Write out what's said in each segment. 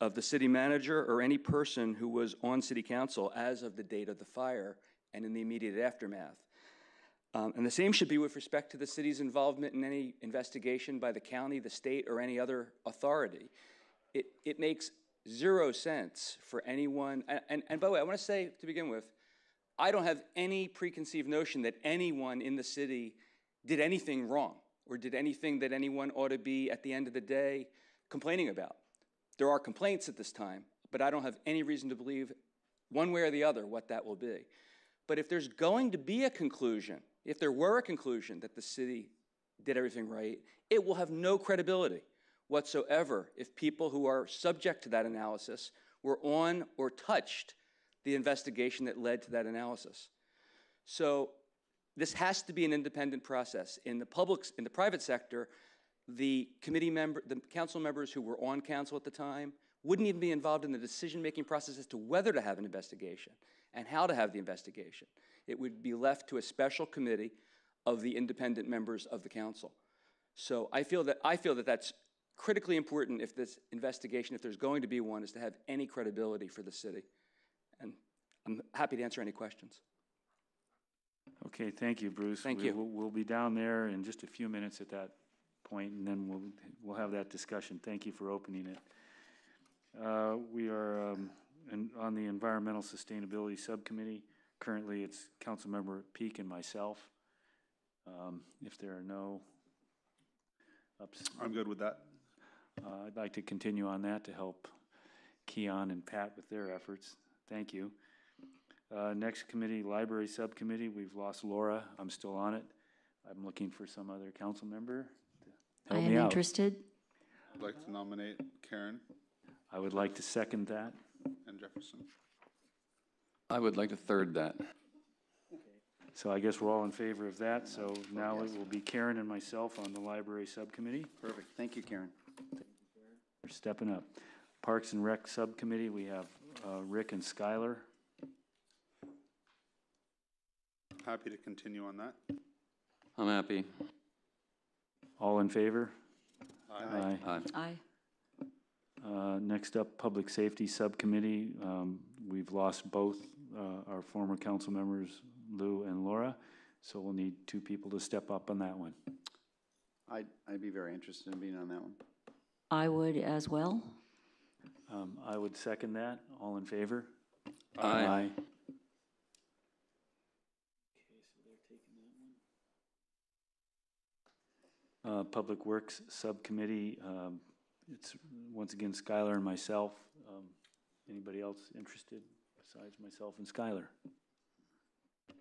of the city manager or any person who was on city council as of the date of the fire and in the immediate aftermath. Um, and the same should be with respect to the city's involvement in any investigation by the county, the state, or any other authority. It, it makes zero sense for anyone, and, and, and by the way, I want to say to begin with, I don't have any preconceived notion that anyone in the city did anything wrong or did anything that anyone ought to be at the end of the day complaining about. There are complaints at this time, but I don't have any reason to believe one way or the other what that will be. But if there's going to be a conclusion, if there were a conclusion that the city did everything right, it will have no credibility whatsoever if people who are subject to that analysis were on or touched the investigation that led to that analysis. So this has to be an independent process. In the public, in the private sector, the committee member, the council members who were on council at the time wouldn't even be involved in the decision-making process as to whether to have an investigation and how to have the investigation. It would be left to a special committee of the independent members of the council. So I feel that, I feel that that's critically important if this investigation, if there's going to be one, is to have any credibility for the city. And I'm happy to answer any questions. Okay, thank you, Bruce. Thank We- you. We'll, we'll be down there in just a few minutes at that point, and then we'll, we'll have that discussion. Thank you for opening it. Uh, We are um, in- on the Environmental Sustainability Subcommittee. Currently, it's Councilmember Peak and myself. Um, If there are no ups, I'm good with that. uh, I'd like to continue on that to help Keon and Pat with their efforts. Thank you. Uh, Next committee, Library Subcommittee, we've lost Laura. I'm still on it. I'm looking for some other council member to I help am me out. interested. I'd like to nominate Karen I would like to second that. and Jefferson. I would like to third that. So I guess we're all in favor of that. So now it will be Karen and myself on the Library Subcommittee. Perfect. Thank you, Karen. We're stepping up. Parks and Rec Subcommittee, we have uh, Rick and Skylar. Happy to continue on that. I'm happy. All in favor? Aye. Aye. Aye. Uh, Next up, Public Safety Subcommittee. Um, We've lost both uh, our former council members, Lou and Laura, so we'll need two people to step up on that one. I'd, I'd be very interested in being on that one. I would as well. Um, I would second that. All in favor? Aye. Uh, Public Works Subcommittee, um, it's once again Skylar and myself. Um, Anybody else interested besides myself and Skylar?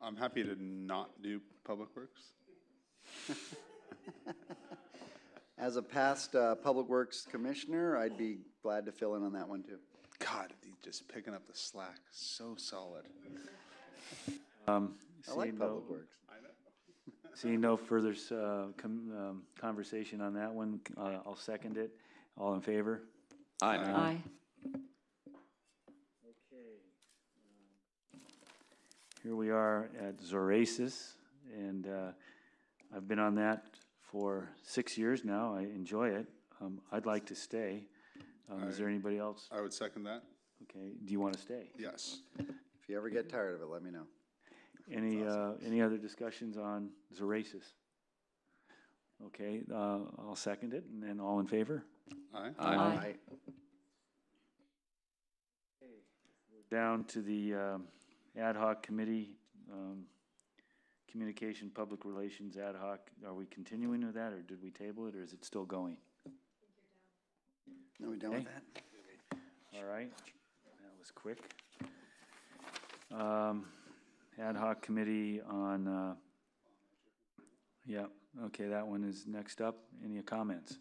I'm happy to not do Public Works. As a past uh, Public Works Commissioner, I'd be glad to fill in on that one, too. God, he's just picking up the slack. So solid. I like Seeing no- Public Works. Seeing no further uh, com- um, conversation on that one, uh, I'll second it. All in favor? Aye. Aye. Here we are at Zoraces, and uh, I've been on that for six years now. I enjoy it. Um, I'd like to stay. Um, Is there anybody else? I would second that. Okay, do you want to stay? Yes. If you ever get tired of it, let me know. Any, uh, any other discussions on Zoraces? Okay, uh, I'll second it, and then all in favor? Aye. Aye. I, down to the um, ad hoc committee, um, Communication Public Relations Ad hoc. Are we continuing with that, or did we table it, or is it still going? no, we done with Okay. that? All right, that was quick. Um, Ad hoc committee on, uh, yeah, okay, that one is next up. Any comments?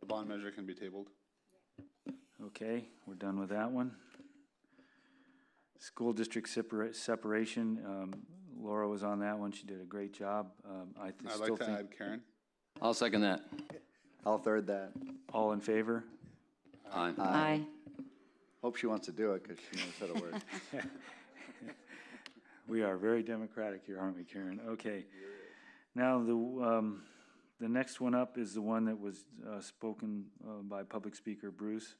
The bond measure can be tabled. Okay, we're done with that one. School district separa- separation, um, Laura was on that one, she did a great job. Um, I th- I'd still like to think, add Karen. I'll second that. I'll third that. all in favor? Aye. Aye. Hope she wants to do it, because she knows how to work. We are very democratic here, aren't we, Karen? Okay. Now, the, um, the next one up is the one that was, uh, spoken, uh, by public speaker Bruce.